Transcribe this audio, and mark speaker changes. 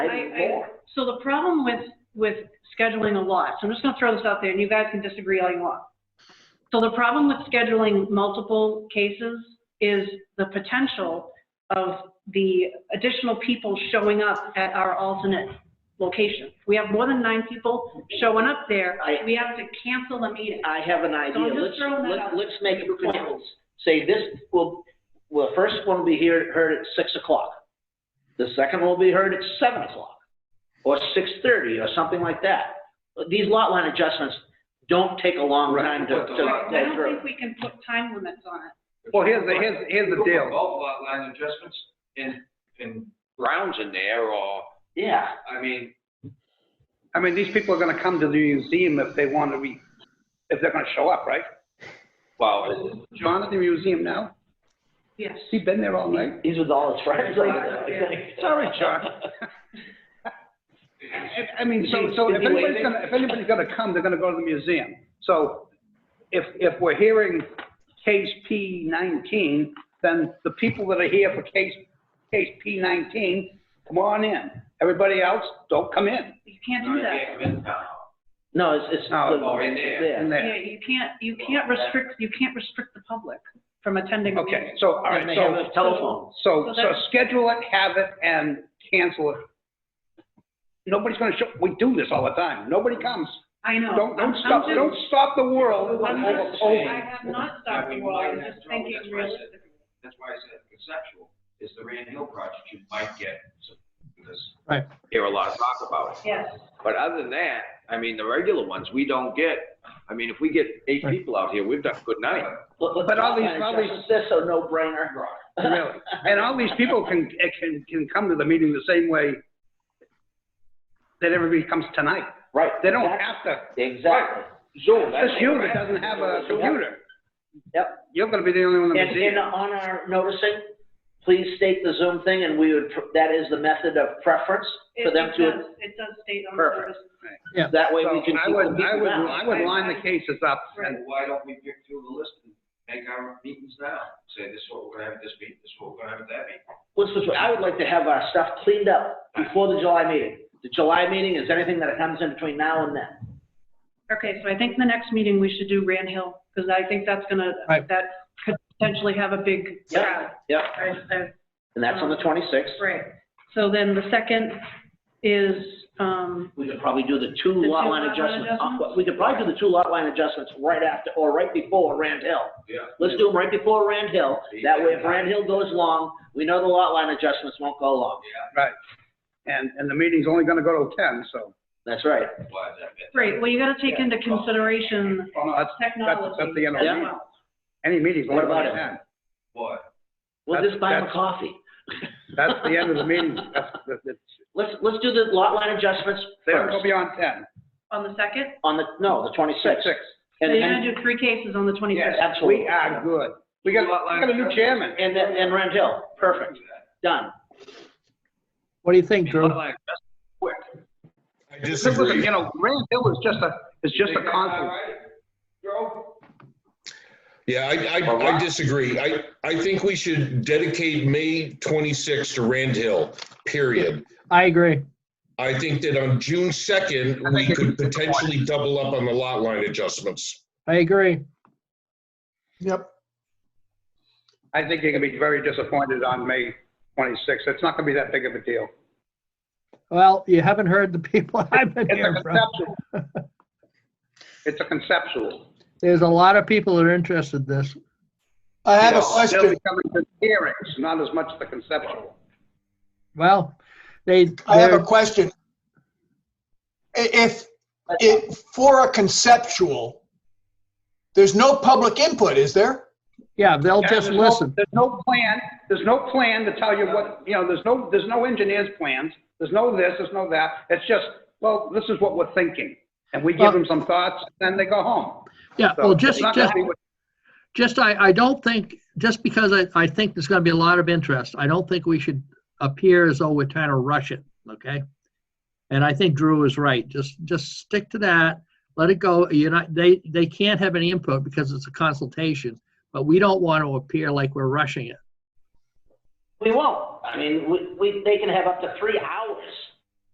Speaker 1: maybe
Speaker 2: I- I-
Speaker 1: more.
Speaker 2: So the problem with, with scheduling a lot, so I'm just gonna throw this out there, and you guys can disagree all you want. So the problem with scheduling multiple cases is the potential of the additional people showing up at our alternate location. We have more than nine people showing up there,
Speaker 1: I-
Speaker 2: we have to cancel the meeting.
Speaker 1: I have an
Speaker 2: So I'm
Speaker 1: idea.
Speaker 2: just
Speaker 1: Let's,
Speaker 2: throwing that
Speaker 1: let-
Speaker 2: out.
Speaker 1: let's make appointments. Say this, will, well, the first one will be here, heard at six o'clock. The second will be heard at seven o'clock, or six thirty, or something like that. But These lot line adjustments don't take a long
Speaker 3: Right.
Speaker 1: time to, to
Speaker 2: I
Speaker 3: Right.
Speaker 1: go
Speaker 2: don't
Speaker 1: through.
Speaker 2: think we can put time limits on it.
Speaker 4: Well, here's the, here's, here's the
Speaker 3: Put
Speaker 4: deal.
Speaker 3: Both lot line adjustments and, and grounds in there, or,
Speaker 1: Yeah,
Speaker 3: I mean,
Speaker 4: I mean, these people are gonna come to the museum if they want to be, if they're gonna show up, right?
Speaker 3: well,
Speaker 4: John at the museum now?
Speaker 2: Yes.
Speaker 4: He been there all night?
Speaker 1: these are all his friends.
Speaker 4: Sorry, John. I- I mean, so, so if anybody's gonna, if anybody's gonna come, they're gonna go to the museum. So if, if we're hearing case P nineteen, then the people that are here for case, case P nineteen, come on in. Everybody else, don't come in,
Speaker 2: You can't
Speaker 3: no,
Speaker 2: do
Speaker 3: you
Speaker 2: that.
Speaker 3: can't come in town.
Speaker 1: No, it's, it's.
Speaker 4: No,
Speaker 3: it's already there.
Speaker 1: Yeah.
Speaker 4: in
Speaker 2: Yeah,
Speaker 4: there.
Speaker 2: you can't, you can't restrict, you can't restrict the public from attending a meeting.
Speaker 4: Okay, so, all right,
Speaker 1: And they
Speaker 4: so.
Speaker 1: have a telephone.
Speaker 4: So,
Speaker 2: So
Speaker 4: so
Speaker 2: that's-
Speaker 4: schedule it, have it, and cancel it. Nobody's gonna show, we do this all the time, nobody comes.
Speaker 2: I know. I'm-
Speaker 4: Don't, don't
Speaker 2: I'm
Speaker 4: stop,
Speaker 2: just-
Speaker 4: don't stop the world
Speaker 2: I'm
Speaker 4: over
Speaker 2: just-
Speaker 4: COVID.
Speaker 2: I have not stopped the world, I'm just thinking realistically.
Speaker 3: That's why I said conceptual, is the Rand Hill project, you might get some, because
Speaker 4: Right.
Speaker 3: hear a lot of talk about it.
Speaker 2: Yes,
Speaker 3: But other than that, I mean, the regular ones, we don't get, I mean, if we get eight people out here, we've done a good night.
Speaker 4: But all these- all these-
Speaker 1: This a no-brainer.
Speaker 4: Really, and all these people can, eh, can, can come to the meeting the same way that everybody comes tonight.
Speaker 1: Right.
Speaker 4: They don't have to,
Speaker 1: Exactly.
Speaker 3: Zoom. that's
Speaker 4: just you that doesn't have a computer.
Speaker 1: Yep.
Speaker 4: You're gonna be the only one in the
Speaker 1: And, and
Speaker 4: museum.
Speaker 1: on our noticing, please state the Zoom thing, and we would, pr- that is the method of preference
Speaker 2: it
Speaker 1: for
Speaker 2: it
Speaker 1: them to,
Speaker 2: does, it does state on
Speaker 1: Perfect.
Speaker 2: the
Speaker 1: that way
Speaker 4: So
Speaker 1: we can
Speaker 4: I
Speaker 1: keep
Speaker 4: would,
Speaker 1: the
Speaker 4: I
Speaker 1: people
Speaker 4: would,
Speaker 1: down.
Speaker 4: I would line the cases up and
Speaker 3: Then why don't we pick through the list and make our meetings now? Say, this is what we're gonna have at this meeting, this is what we're gonna have at that meeting.
Speaker 1: What's this, way, I would like to have our stuff cleaned up before the July meeting. The July meeting is anything that comes in between now and then.
Speaker 2: Okay, so I think the next meeting we should do Rand Hill, because I think that's gonna,
Speaker 4: Right.
Speaker 2: that could potentially have a big
Speaker 1: Yep.
Speaker 2: crowd.
Speaker 1: Yep,
Speaker 2: I- I-
Speaker 1: and that's on the twenty-sixth.
Speaker 2: Right. So then the second is, um,
Speaker 1: We could probably do the two
Speaker 2: The
Speaker 1: lot
Speaker 2: two
Speaker 1: line
Speaker 2: lot line
Speaker 1: adjustments.
Speaker 2: adjustments?
Speaker 1: We could probably do the two lot line adjustments right after, or right before Rand Hill.
Speaker 3: Yeah.
Speaker 1: Let's do them right before Rand Hill. That way, if Rand Hill goes long, we know the lot line adjustments won't go long.
Speaker 3: Yeah,
Speaker 4: Right. And, and the meeting's only gonna go till ten, so.
Speaker 1: That's right.
Speaker 3: why is that? bad?
Speaker 2: great, well, you gotta take into consideration
Speaker 4: Well, no, that's-
Speaker 2: technology.
Speaker 4: that's the end of
Speaker 2: as
Speaker 1: the meeting.
Speaker 2: well.
Speaker 4: Any meeting's
Speaker 1: What
Speaker 4: only
Speaker 1: about
Speaker 4: gonna
Speaker 1: it?
Speaker 4: ten.
Speaker 3: What?
Speaker 1: We'll just buy him a
Speaker 4: That's-
Speaker 1: coffee.
Speaker 4: That's the end of the meeting. That's, that's, it's-
Speaker 1: Let's, let's do the lot line adjustments
Speaker 4: they don't go
Speaker 1: first,
Speaker 4: beyond ten.
Speaker 2: On the second,
Speaker 1: on the, no, the twenty-sixth.
Speaker 4: Six.
Speaker 2: so
Speaker 1: And,
Speaker 2: you're gonna
Speaker 1: and,
Speaker 2: do three cases on the
Speaker 4: Yes,
Speaker 2: 21st.
Speaker 1: absolutely.
Speaker 4: we are good. We got, we got a new chairman.
Speaker 1: and, then- and Rand Hill, perfect,
Speaker 3: Do that.
Speaker 1: done.
Speaker 5: What do you think,
Speaker 3: Lot
Speaker 5: Drew?
Speaker 3: line adjustment, quick.
Speaker 6: I
Speaker 4: Listen,
Speaker 6: disagree.
Speaker 4: You know, Rand Hill is just a, is just a
Speaker 3: Think that's all
Speaker 4: concept.
Speaker 3: right, Joe?
Speaker 6: Yeah, I, I, I disagree. I, I think we should dedicate May 26th to Rand Hill, period.
Speaker 5: I agree.
Speaker 6: I think that on June 2nd, we could potentially double up on the lot line adjustments.
Speaker 5: I agree.
Speaker 6: Yep.
Speaker 4: I think you're gonna be very disappointed on May twenty-sixth. It's not gonna be that big of a deal.
Speaker 5: Well, you haven't heard the people I've been
Speaker 4: It's a
Speaker 5: hearing from.
Speaker 4: conceptual. It's a conceptual.
Speaker 5: There's a lot of people that are interested in this.
Speaker 7: I have a
Speaker 6: Yes.
Speaker 4: They'll
Speaker 7: question.
Speaker 4: be coming to hearings, not as much the conceptual.
Speaker 5: Well, they,
Speaker 7: I have a
Speaker 5: they're-
Speaker 7: question. I- If, if, for a conceptual, there's no public input, is there?
Speaker 5: yeah, they'll just
Speaker 4: There's no-
Speaker 5: listen.
Speaker 4: There's no plan, there's no plan to tell you what, you know, there's no, there's no engineer's plans, there's no this, there's no that. It's just, well, this is what we're thinking. And we give them some thoughts, then they go home.
Speaker 5: Yeah,
Speaker 4: So
Speaker 5: well,
Speaker 4: it's
Speaker 5: just,
Speaker 4: not gonna
Speaker 5: just,
Speaker 4: be what-
Speaker 5: just, I, I don't think, just because I, I think there's gonna be a lot of interest, I don't think we should appear as though we're trying to rush it, okay? And I think Drew is right. Just, just stick to that. Let it go. You're not, they, they can't have any input because it's a consultation, but we don't want to appear like we're rushing it.
Speaker 1: We won't, I mean, we, we, they can have up to three hours